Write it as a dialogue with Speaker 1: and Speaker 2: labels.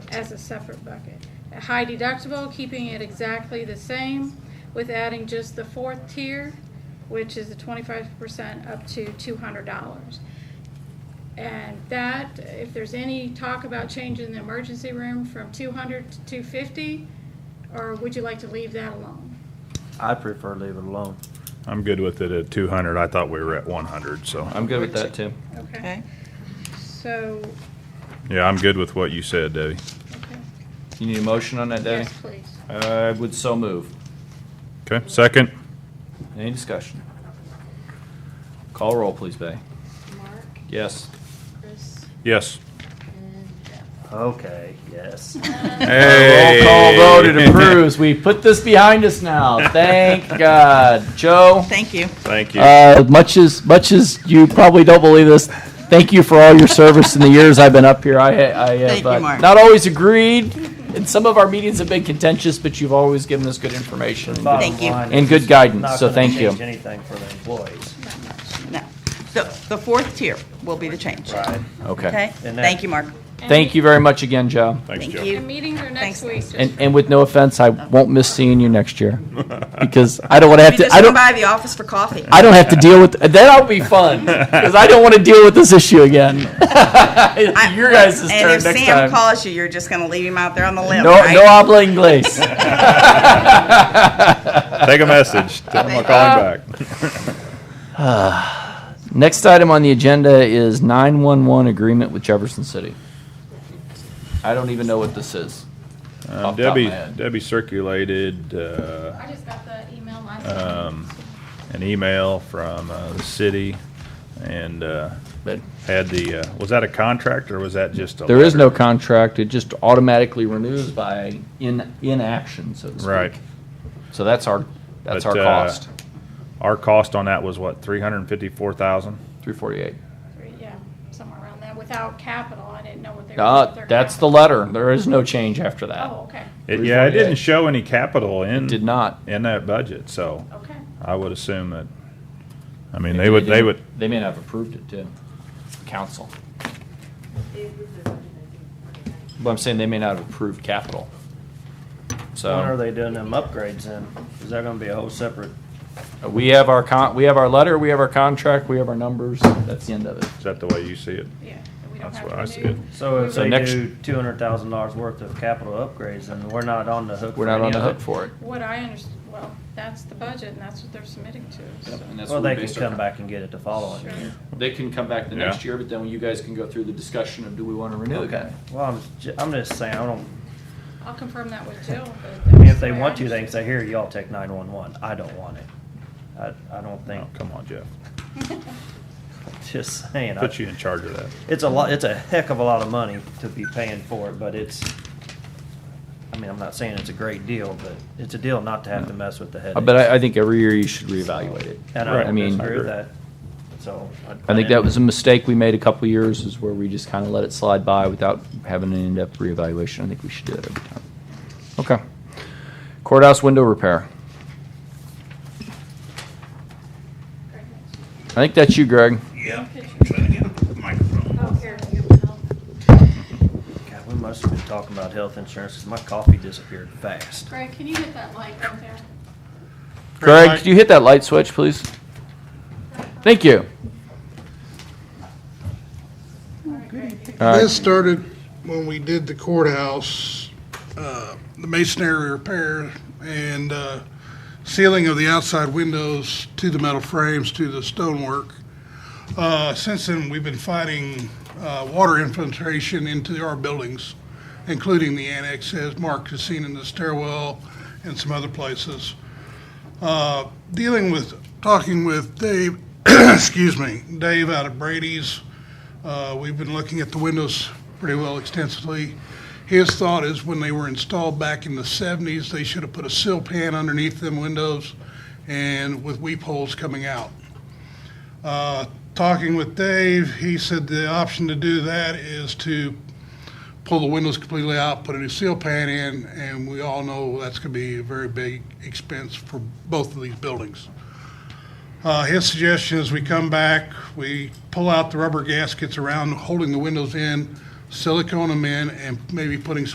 Speaker 1: as a separate bucket. A High deductible, keeping it exactly the same with adding just the fourth tier, which is the twenty-five percent up to two hundred dollars. And that, if there's any talk about changing the emergency room from two hundred to two fifty, or would you like to leave that alone?
Speaker 2: I prefer leave it alone.
Speaker 3: I'm good with it at two hundred. I thought we were at one hundred, so.
Speaker 2: I'm good with that too.
Speaker 1: Okay,
Speaker 4: Okay.
Speaker 1: so,
Speaker 3: Yeah, I'm good with what you said, Debbie.
Speaker 1: okay,
Speaker 2: You need a motion on that, Debbie?
Speaker 1: yes, please.
Speaker 2: I would so move.
Speaker 3: Okay, second?
Speaker 2: Any discussion? Call roll, please, Bay.
Speaker 5: Mark,
Speaker 2: Yes.
Speaker 5: Chris,
Speaker 3: Yes.
Speaker 5: and Jeff.
Speaker 6: Okay, yes.
Speaker 2: Roll call vote, it approves. We put this behind us now. Thank God. Joe?
Speaker 4: Thank you.
Speaker 3: Thank you.
Speaker 2: Uh, much as much as you probably don't believe this, thank you for all your service in the years I've been up here. I, I have
Speaker 4: Thank you,
Speaker 2: uh,
Speaker 4: Mark.
Speaker 2: not always agreed, and some of our meetings have been contentious, but you've always given us good information. and good-
Speaker 4: Thank you.
Speaker 2: And good guidance, so thank you.
Speaker 6: Not gonna change anything for the employees,
Speaker 4: No. So the fourth tier will be the change.
Speaker 6: right?
Speaker 4: Okay?
Speaker 2: Okay.
Speaker 6: And that-
Speaker 4: Thank you, Mark.
Speaker 2: Thank you very much again, Joe.
Speaker 3: Thanks,
Speaker 4: Thank
Speaker 3: Joe.
Speaker 4: you.
Speaker 1: And meetings are next
Speaker 4: Thanks.
Speaker 1: week. just
Speaker 2: And
Speaker 1: for-
Speaker 2: and with no offense, I won't miss seeing you next year because I don't want to have
Speaker 4: We
Speaker 2: to.
Speaker 4: just
Speaker 2: I
Speaker 4: went
Speaker 2: don't.
Speaker 4: by the office for coffee.
Speaker 2: I don't have to deal with that'll be fun because I don't want to deal with this issue again.
Speaker 4: I-
Speaker 2: Your guys' turn
Speaker 4: And if
Speaker 2: next
Speaker 4: Sam
Speaker 2: time.
Speaker 4: calls you, you're just gonna leave him out there on the limb,
Speaker 2: no,
Speaker 4: right?
Speaker 2: no habla inglés.
Speaker 3: Take a message. Tell them I'll call him back. Uh,
Speaker 2: Next item on the agenda is 911 agreement with Jefferson City. I don't even know what this is.
Speaker 3: Um,
Speaker 2: Off the top of my
Speaker 3: Debbie,
Speaker 2: head.
Speaker 3: Debbie circulated, uh,
Speaker 1: I just got the email last
Speaker 3: Um,
Speaker 1: night.
Speaker 3: an email from, uh, the city and, uh,
Speaker 2: But
Speaker 3: had the, uh, was that a contract or was that just a?
Speaker 2: there is
Speaker 3: letter?
Speaker 2: no contract. It just automatically renews by in inaction, so to speak.
Speaker 3: Right.
Speaker 2: So that's our that's
Speaker 3: But,
Speaker 2: our
Speaker 3: uh,
Speaker 2: cost.
Speaker 3: Our cost on that was what, three hundred and fifty-four thousand?
Speaker 2: 348.
Speaker 1: Three, Yeah, somewhere around that, without capital, I didn't know what they were. what
Speaker 2: Uh,
Speaker 1: their
Speaker 2: that's the
Speaker 1: capital-
Speaker 2: letter. There is no change after that.
Speaker 1: Oh, okay,
Speaker 3: It, yeah, it
Speaker 2: 348.
Speaker 3: didn't show any capital in.
Speaker 2: Did not.
Speaker 3: In that budget, so
Speaker 1: okay.
Speaker 3: I would assume that, I mean, they would, they would,
Speaker 2: They may not have approved it too. Council. But I'm saying they may not have approved capital. So.
Speaker 6: When are they doing them upgrades then? Is that gonna be a whole separate,
Speaker 2: uh, We have our con, we have our letter, we have our contract, we have our numbers. That's the end of it.
Speaker 3: is that the way you see it?
Speaker 1: Yeah, we don't
Speaker 3: That's
Speaker 1: have
Speaker 3: what
Speaker 1: to
Speaker 3: I see
Speaker 1: renew.
Speaker 3: it.
Speaker 6: so if
Speaker 2: So
Speaker 6: they
Speaker 2: next-
Speaker 6: do two hundred thousand dollars worth of capital upgrades, then we're not on the hook
Speaker 2: We're
Speaker 6: for
Speaker 2: not
Speaker 6: any
Speaker 2: on the
Speaker 6: of
Speaker 2: hook
Speaker 6: it?
Speaker 2: for it.
Speaker 1: What I understand, well, that's the budget, and that's what they're submitting to, so.
Speaker 6: Well, they can come back and get it the following year.
Speaker 2: They can come back the
Speaker 3: Yeah.
Speaker 2: next year, but then you guys can go through the discussion of do we want to renew again?
Speaker 6: Well, I'm, ju- I'm just saying, I don't,
Speaker 1: I'll confirm that with Jill, but.
Speaker 6: I mean,
Speaker 1: that's
Speaker 6: if they
Speaker 1: the way I
Speaker 6: want to, they can
Speaker 1: understand
Speaker 6: say, here, y'all take nine-one-one. I don't want it. I, I don't think,
Speaker 3: Oh, come on, Jeff.
Speaker 6: just saying. I-
Speaker 3: Put you in charge of that.
Speaker 6: It's a lot, it's a heck of a lot of money to be paying for it, but it's, I mean, I'm not saying it's a great deal, but it's a deal not to have to mess with the headaches.
Speaker 2: Uh, But I, I think every year you should reevaluate it.
Speaker 6: And
Speaker 3: Right.
Speaker 6: I
Speaker 2: I
Speaker 6: don't
Speaker 2: mean,
Speaker 6: disagree with that, so.
Speaker 2: I think that was a mistake we made a couple years is where we just kind of let it slide by without having an in-depth reevaluation. I think we should do that every time. Okay. Courthouse window repair. I think that's you,
Speaker 1: Oh,
Speaker 2: Greg.
Speaker 1: here, you
Speaker 6: God, we must have been talking about health insurance, 'cause my coffee disappeared fast.
Speaker 1: Greg, can you hit that light right there?
Speaker 2: Greg, could you hit that light switch, please? Thank you. All right.
Speaker 7: This started when we did the courthouse, uh, the masonry repair and uh, sealing of the outside windows to the metal frames, to the stonework. Uh, Since then, we've been fighting uh, water infiltration into our buildings, including the annex, as Mark has seen in the stairwell and some other places. Uh, Dealing with, talking with Dave, excuse me, Dave out of Brady's, uh, We've been looking at the windows pretty well extensively. His thought is when they were installed back in the 70s, they should have put a sill pan underneath them windows and with weep holes coming out. Uh, Talking with Dave, he said the option to do that is to pull the windows completely out, put a new sill pan in, and we all know that's going to be a very big expense for both of these buildings. Uh, his suggestion is we come back, we pull out the rubber gaskets around holding the windows in, silicone them in, and maybe putting